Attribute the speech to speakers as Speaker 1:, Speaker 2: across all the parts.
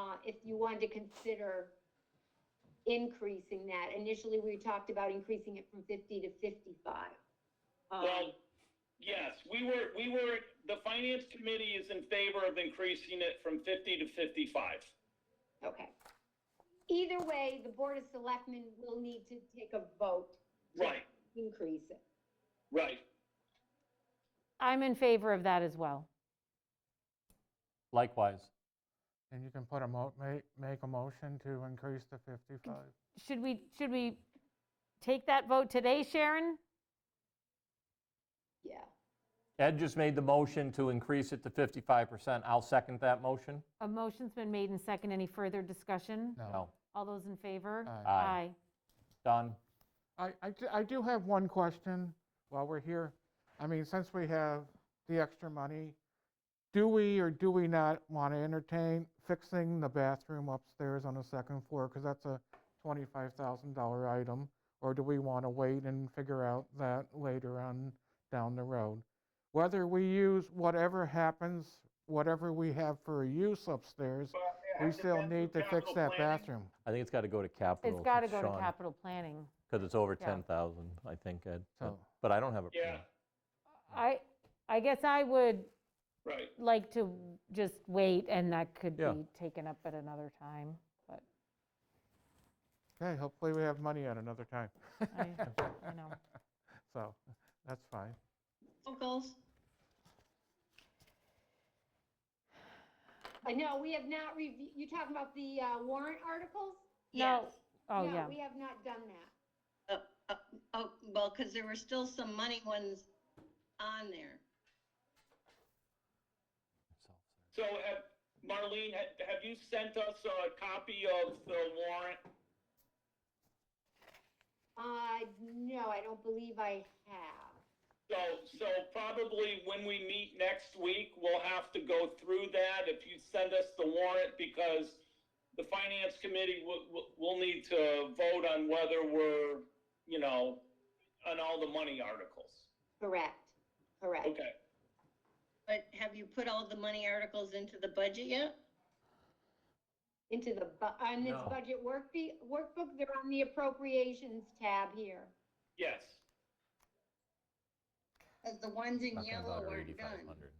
Speaker 1: uh, if you wanted to consider increasing that. Initially, we talked about increasing it from fifty to fifty-five. Um,
Speaker 2: Well, yes, we were, we were, the finance committee is in favor of increasing it from fifty to fifty-five.
Speaker 1: okay. Either way, the Board of Selectmen will need to take a vote
Speaker 2: Right,
Speaker 1: to increase it.
Speaker 2: right.
Speaker 3: I'm in favor of that as well.
Speaker 4: Likewise.
Speaker 5: And you can put a mo, make, make a motion to increase to 55.
Speaker 3: Should we, should we take that vote today, Sharon?
Speaker 1: Yeah,
Speaker 4: Ed just made the motion to increase it to 55%. I'll second that motion.
Speaker 3: A motion's been made and second. Any further discussion?
Speaker 4: No.
Speaker 3: All those in favor?
Speaker 5: Aye.
Speaker 4: Aye. Done.
Speaker 5: I, I d- I do have one question while we're here. I mean, since we have the extra money, do we or do we not want to entertain fixing the bathroom upstairs on the second floor? Because that's a $25,000 item. Or do we want to wait and figure out that later on down the road? Whether we use whatever happens, whatever we have for use upstairs, we still need to fix that bathroom.
Speaker 4: I think it's got to go to capital.
Speaker 3: It's got to go to capital planning.
Speaker 4: Because it's over
Speaker 3: Yeah.
Speaker 4: 10,000, I think, Ed. but-
Speaker 5: So-
Speaker 4: But I don't have a.
Speaker 2: Yeah,
Speaker 3: I, I guess I would
Speaker 2: right.
Speaker 3: like to just wait, and that could
Speaker 4: Yeah.
Speaker 3: be taken up at another time, but
Speaker 5: Okay, hopefully we have money at another time.
Speaker 3: I, you know.
Speaker 5: So, that's fine.
Speaker 6: Locals,
Speaker 1: I know, Uh, we have not reviewed, you talking about the uh, warrant articles?
Speaker 3: No,
Speaker 6: yes.
Speaker 3: Oh,
Speaker 1: No,
Speaker 3: yeah.
Speaker 1: We have not done that.
Speaker 6: Uh, uh, Oh, well, because there were still some money ones on there.
Speaker 2: So, have- Marlene, ha- have you sent us a copy of the warrant?
Speaker 1: Uh, no, I don't believe I have.
Speaker 2: So, so probably when we meet next week, we'll have to go through that if you send us the warrant because the finance committee will, will- will need to vote on whether we're, you know, on all the money articles.
Speaker 1: Correct, correct.
Speaker 2: Okay.
Speaker 6: But have you put all the money articles into the budget yet?
Speaker 1: Into the, bu- on this
Speaker 4: No.
Speaker 1: budget workbe- workbook, they're on the appropriations tab here.
Speaker 2: Yes.
Speaker 6: 'Cause the ones in
Speaker 4: Talking
Speaker 6: yellow
Speaker 4: about our
Speaker 6: aren't done.
Speaker 4: 8,500.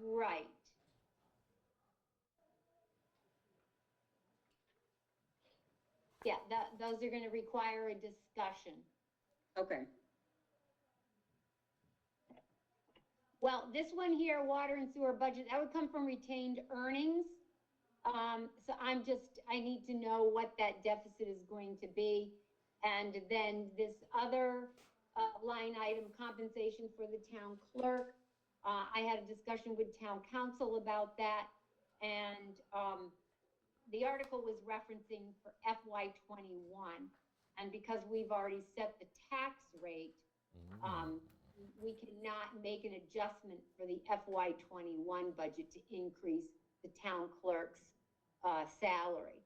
Speaker 1: Right. Yeah, that, those are gonna require a discussion.
Speaker 6: Okay.
Speaker 1: Well, this one here, water and sewer budget, that would come from retained earnings. Um, so I'm just, I need to know what that deficit is going to be. And then this other, uh, line item, compensation for the town clerk. Uh, I had a discussion with town council about that. And, um, the article was referencing for FY twenty-one. And because we've already set the tax rate, um, we cannot make an adjustment for the FY twenty-one budget to increase the town clerk's, uh, salary.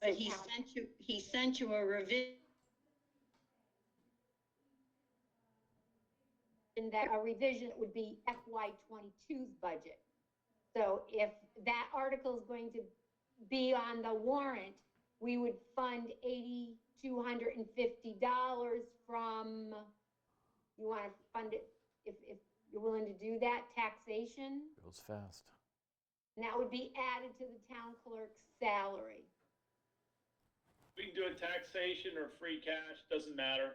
Speaker 6: But
Speaker 1: So
Speaker 6: he
Speaker 1: town-
Speaker 6: sent you, he sent you a revision.
Speaker 1: And that a revision would be FY 22's budget. So if that article is going to be on the warrant, we would fund eighty-two hundred and fifty dollars from, you want to fund it, if, if you're willing to do that, taxation?
Speaker 4: Goes fast.
Speaker 1: And that would be added to the town clerk's salary.
Speaker 2: We can do a taxation or free cash, doesn't matter.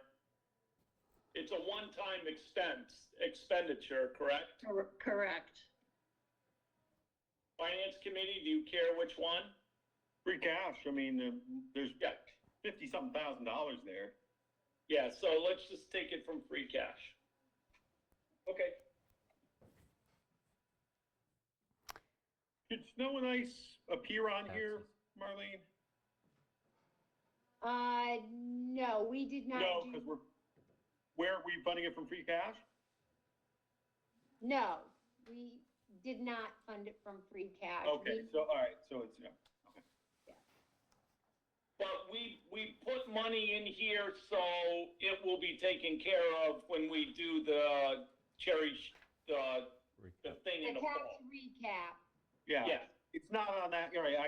Speaker 2: It's a one-time expense, expenditure, correct?
Speaker 6: Cor- Correct.
Speaker 2: Finance committee, do you care which one?
Speaker 7: free cash, I mean, there- there's
Speaker 2: Yeah,
Speaker 7: fifty-something thousand dollars there.
Speaker 2: yeah, so let's just take it from free cash. Okay.
Speaker 7: Did snow and ice appear on here, Marlene?
Speaker 1: Uh, no, we did not
Speaker 7: No,
Speaker 1: do,
Speaker 7: because we're, where, are we funding it from free cash?
Speaker 1: no, we did not fund it from free cash.
Speaker 7: Okay,
Speaker 1: We-
Speaker 7: so, all right, so it's, yeah.
Speaker 2: But we, we put money in here, so it will be taken care of when we do the cherish, the, the thing in
Speaker 1: The
Speaker 2: the
Speaker 1: tax
Speaker 2: fall.
Speaker 1: recap.
Speaker 7: yeah,
Speaker 2: Yeah.
Speaker 7: it's not on that, all right, I